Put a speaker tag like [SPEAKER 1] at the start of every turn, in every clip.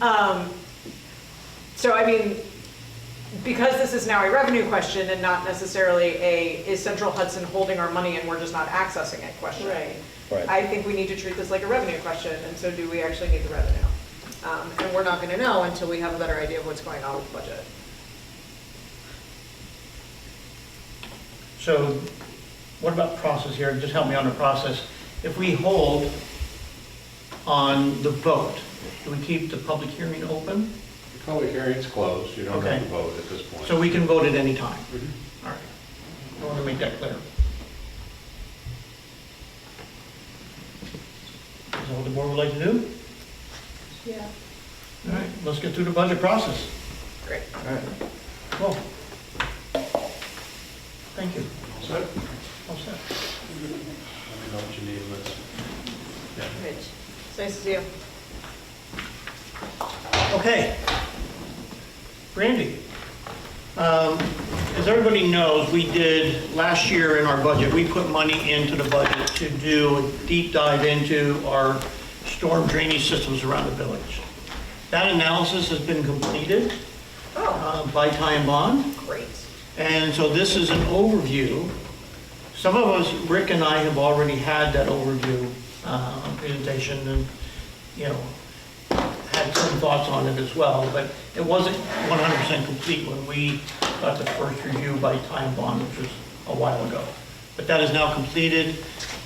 [SPEAKER 1] Um, So I mean, because this is now a revenue question and not necessarily a, is Central Hudson holding our money and we're just not accessing it question?
[SPEAKER 2] Right.
[SPEAKER 3] Right.
[SPEAKER 1] I think we need to treat this like a revenue question, and so do we actually need the revenue? Um, And we're not gonna know until we have a better idea of what's going on with the budget.
[SPEAKER 4] So what about process here? Just help me on the process. If we hold on the vote, do we keep the public hearing open?
[SPEAKER 5] The Public hearing's closed, you don't have to
[SPEAKER 4] Okay.
[SPEAKER 5] vote at this point.
[SPEAKER 4] So we can vote at any time?
[SPEAKER 3] Mm-hmm.
[SPEAKER 4] All right. I want to make that clear. Is that what the board would like to do?
[SPEAKER 2] Yeah.
[SPEAKER 4] All right, let's get through the budget process.
[SPEAKER 1] Great.
[SPEAKER 3] All right.
[SPEAKER 4] Cool. Thank you.
[SPEAKER 5] So, I don't
[SPEAKER 4] All set.
[SPEAKER 5] know what you need, let's,
[SPEAKER 1] Rich, it's nice to see you.
[SPEAKER 4] Okay. Randy, um, as everybody knows, we did, last year in our budget, we put money into the budget to do a deep dive into our storm drainage systems around the village. That analysis has been completed
[SPEAKER 1] Oh,
[SPEAKER 4] uh, by Ty and Bond.
[SPEAKER 1] great.
[SPEAKER 4] And so this is an overview. Some of us, Rick and I, have already had that overview uh, presentation and, you know, had some thoughts on it as well, but it wasn't 100% complete when we got the first review by Time Bond, which was a while ago. But that is now completed.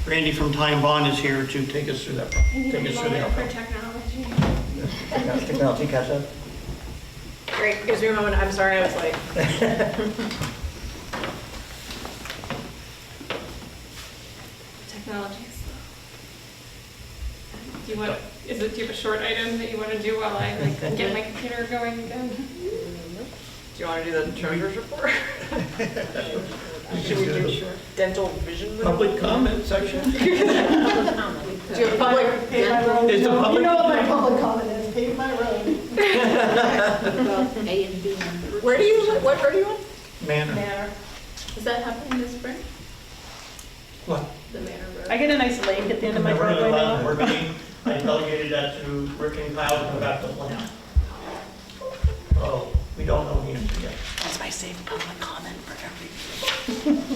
[SPEAKER 4] Randy from Time Bond is here to take us through that,
[SPEAKER 2] And you
[SPEAKER 4] take
[SPEAKER 2] need a
[SPEAKER 4] us through
[SPEAKER 2] moment for
[SPEAKER 4] that.
[SPEAKER 2] technology.
[SPEAKER 3] Technology catch up?
[SPEAKER 1] Great, gives me a moment, I'm sorry, I was like,
[SPEAKER 2] Technology is slow. Do you want, is it, do you have a short item that you want to do while I like get my computer going again?
[SPEAKER 1] do you wanna do the treasurer's report? Should we do dental vision?
[SPEAKER 4] Public comment section?
[SPEAKER 1] Do you have public?
[SPEAKER 6] Pave my road.
[SPEAKER 4] Is the public-
[SPEAKER 6] You know what my public comment is, pave my road.
[SPEAKER 7] A and B.
[SPEAKER 1] Where do you, li- what, where do you live?
[SPEAKER 4] Manner.
[SPEAKER 6] There.
[SPEAKER 7] Is that happening this spring?
[SPEAKER 4] What?
[SPEAKER 7] The Manor Road?
[SPEAKER 6] I get a nice lake at the end of my
[SPEAKER 4] Remember
[SPEAKER 6] driveway
[SPEAKER 4] the
[SPEAKER 6] now.
[SPEAKER 4] last board meeting? I delegated that to Rick and Kyle to come back to plan. Oh, we don't know the answer yet.
[SPEAKER 7] That's my safe public comment for every.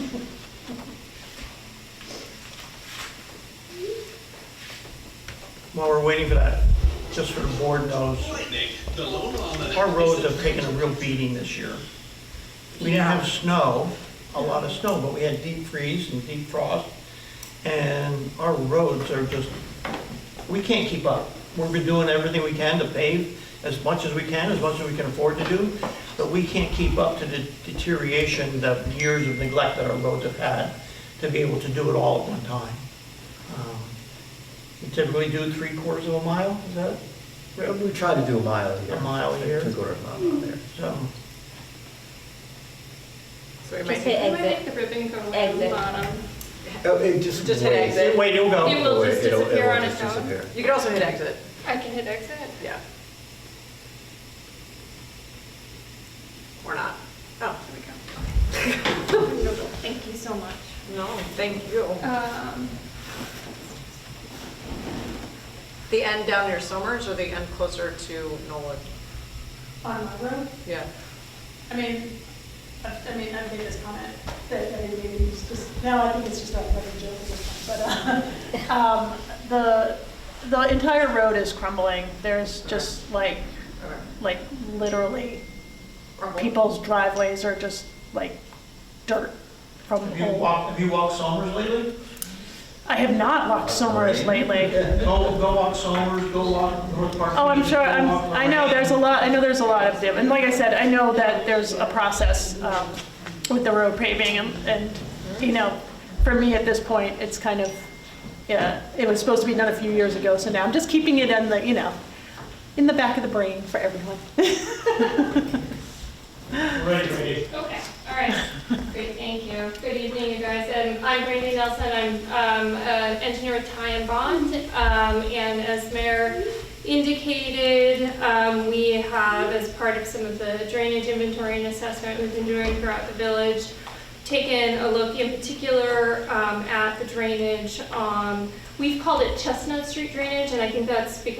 [SPEAKER 4] While we're waiting for that, just so the board knows, our roads have taken a real beating this year. We didn't have snow, a lot of snow, but we had deep freeze and deep frost, and our roads are just, we can't keep up. We've been doing everything we can to pave as much as we can, as much as we can afford to do, but we can't keep up to the deterioration that years of neglect that our roads have had to be able to do it all at one time. Um, we typically do three quarters of a mile, is that?
[SPEAKER 3] Well, We try to do a mile here.
[SPEAKER 4] A mile here.
[SPEAKER 3] Two quarter of a mile there.
[SPEAKER 4] So,
[SPEAKER 1] So we
[SPEAKER 7] Just
[SPEAKER 1] might-
[SPEAKER 7] hit
[SPEAKER 2] Can I make
[SPEAKER 7] exit.
[SPEAKER 2] the ribbon go on the
[SPEAKER 7] Exit.
[SPEAKER 2] bottom?
[SPEAKER 3] Oh, it just.
[SPEAKER 1] Just hit
[SPEAKER 3] waves.
[SPEAKER 1] exit.
[SPEAKER 4] wait, you'll
[SPEAKER 2] You
[SPEAKER 4] go.
[SPEAKER 2] will just
[SPEAKER 3] It'll- it'll
[SPEAKER 2] disappear on
[SPEAKER 3] just
[SPEAKER 2] its own.
[SPEAKER 3] disappear.
[SPEAKER 1] You could also hit exit,
[SPEAKER 2] I can hit exit?
[SPEAKER 1] yeah. Or not. Oh,
[SPEAKER 2] There we go. Thank you so much.
[SPEAKER 1] no, thank you.
[SPEAKER 2] Um,
[SPEAKER 1] The end down near Summers or the end closer to Nolan?
[SPEAKER 6] On my road,
[SPEAKER 1] Yeah.
[SPEAKER 6] I mean, I I mean, I've made this comment, that, I mean, maybe it's just, now I think it's just a running joke at this point, but, uh, um, the, the entire road is crumbling. There's just like,
[SPEAKER 1] Okay.
[SPEAKER 6] like literally
[SPEAKER 1] Rumble.
[SPEAKER 6] people's driveways are just like dirt from the
[SPEAKER 4] Have you
[SPEAKER 6] whole.
[SPEAKER 4] walked, have you walked Somers lately?
[SPEAKER 6] I have not walked Somers lately.
[SPEAKER 4] Go, go walk Somers, go walk North Park.
[SPEAKER 6] Oh, I'm
[SPEAKER 4] Beach,
[SPEAKER 6] sure,
[SPEAKER 4] go
[SPEAKER 6] I'm,
[SPEAKER 4] walk
[SPEAKER 6] I know,
[SPEAKER 4] Lorraine.
[SPEAKER 6] there's a lot, I know there's a lot of them, and like I said, I know that there's a process, um, with the road paving, and, and, you know, for me at this point, it's kind of, yeah, it was supposed to be done a few years ago, so now I'm just keeping it in the, you know, in the back of the brain for everyone.
[SPEAKER 4] Ready, ready.
[SPEAKER 2] Okay, all right. Great, thank you. Good evening, you guys. Um, I'm Brandy Nelson. I'm um, an engineer with Ty and Bond. Um, And as Mayor indicated, um, we have, as part of some of the drainage inventory and assessment we've been doing throughout the village, taken a look in particular um, at the drainage. um, We've called it Chestnut Street drainage, and I think that's because